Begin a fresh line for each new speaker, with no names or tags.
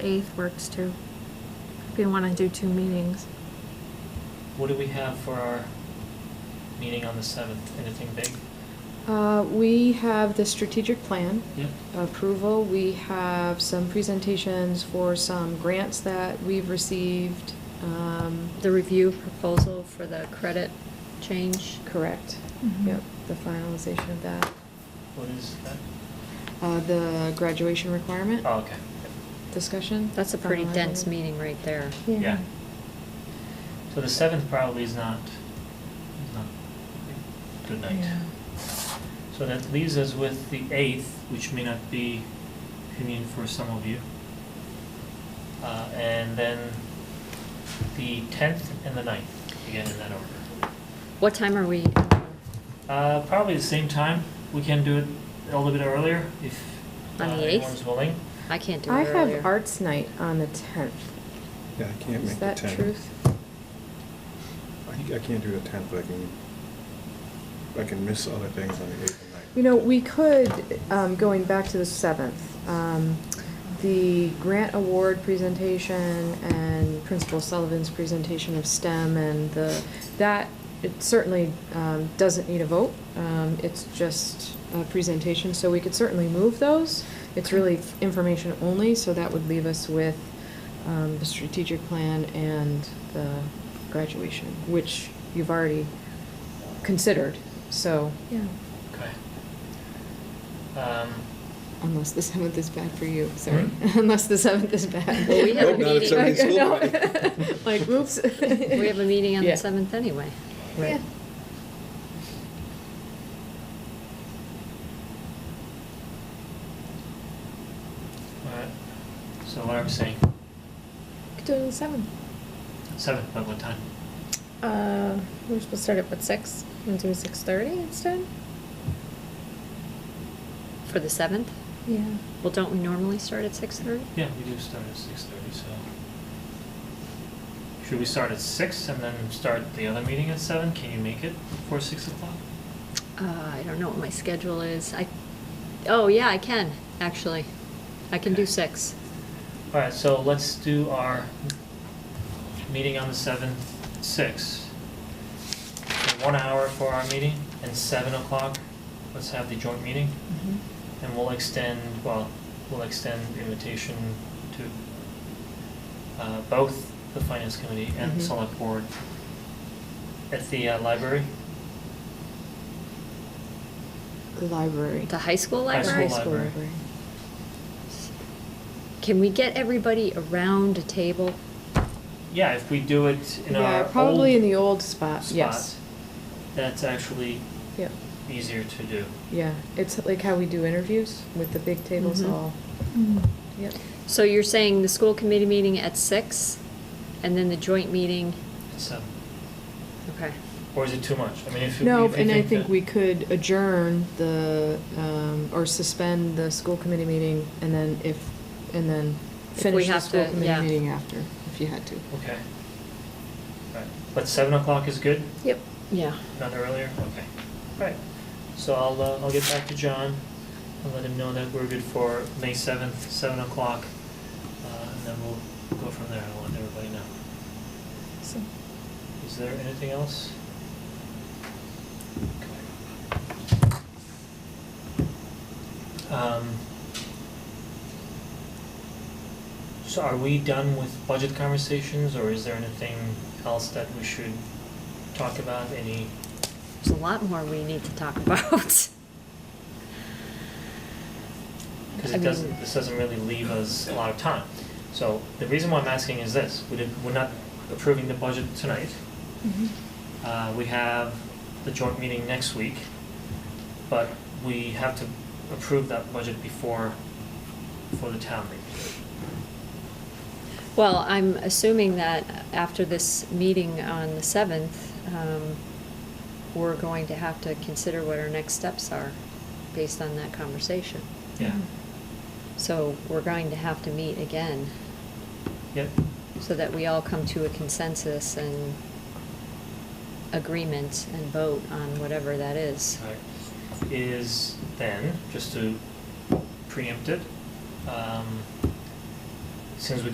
8th works too. If you want to do two meetings.
What do we have for our meeting on the seventh? Anything big?
Uh, We have the strategic plan
Yep.
approval. We have some presentations for some grants that we've received. Um,
The review proposal for the credit change.
Correct.
Mm-hmm.
Mhm.
Yep, the finalization of that.
What is that?
Uh, The graduation requirement
Oh, okay.
discussion.
That's a pretty
finalizing.
dense meeting right there.
Yeah. Yeah. So the seventh probably is not, is not a good night. So that leaves us with the eighth, which may not be convenient for some of you. Uh, and then the tenth and the ninth, again in that order.
What time are we?
Uh, probably the same time. We can do it a little bit earlier if uh,
On the 8th?
anyone's willing.
I can't do
I
it
have
earlier.
arts night on the 10th.
Yeah, I can't
Is
make the
that
tenth.
truth?
I think I can't do the tenth, but I can, I can miss other things on the eighth and ninth.
You know, we could, um, going back to the seventh, um, the grant award presentation and Principal Sullivan's presentation of STEM and the, that, it certainly, um, doesn't need a vote. Um, it's just a presentation, so we could certainly move those. It's really information only, so that would leave us with, um, the strategic plan and the graduation, which you've already considered, so.
Yeah.
Okay. Um,
Unless the seventh is bad for you, sorry.
Hmm?
Unless the seventh is bad.
Well, we have a Nope, not if meeting. somebody's
Like, no.
school.
Like, oops.
We have a meeting on the
Yeah.
7th anyway.
Right.
all right. So what I'm saying,
Could do it on the 7th.
seventh, but what time?
Uh, we're supposed to start at what, 6? Want to do 6:30 instead?
For the 7th?
Yeah.
Well, don't we normally start at 6:30?
Yeah, we do start at six thirty. So should we start at six and then start the other meeting at seven? Can you make it before six o'clock?
Uh, I don't know what my schedule is. I, oh, yeah, I can, actually. I can do
Okay.
6.
All right. So let's do our meeting on the seventh, six. So One hour for our meeting and seven o'clock. Let's have the joint meeting.
Mm-hmm.
And we'll extend, well, we'll extend the invitation to uh, both the finance committee and the
Mhm.
select board at the uh, library,
Library.
The high school
High
library?
school library.
Can we get everybody around a table?
Yeah, if we do it in our
Yeah,
old
probably in the old spot,
spot,
yes.
that's actually
Yeah,
easier to do.
yeah. It's like how we do interviews with the big tables
Mhm.
all,
Mm.
yep.
So you're saying the school committee meeting at 6, and then the joint meeting,
It's, um,
okay.
or is it too much? I mean, if you,
No,
if you
and I
that-
think we could adjourn the, um, or suspend the school committee meting and then if, and then
If we
finish the
have
school
to, yeah.
committee meeting after, if you had to.
Okay. Right, but seven o'clock is good?
Yep.
Yeah.
Not earlier? Okay. Right. So I'll, uh, I'll get back to John and let him know that we're good for May seventh, seven o'clock. Uh, and then we'll go from there. I'll let everybody know.
So-
Is there anything else? Okay. Um, So are we done with budget conversations or is there anything else that we should talk about? Any
There's a lot more we need to talk about.
because
I
it doesn't,
mean-
this doesn't really leave us a lot of time. So the reason why I'm asking is this, we didn't, we're not approving the budget tonight. Uh, we have the joint meeting next week, but we have to approve that budget before, for the town meeting.
Well, I'm assuming that after this meeting on the 7th, um, we're going to have to consider what our next steps are based on that conversation.
Yeah,
So we're going to have to meet again
yep,
so that we all come to a consensus and agreement and vote on whatever that is.
alright. Is then, just to preempt it, um, as soon as we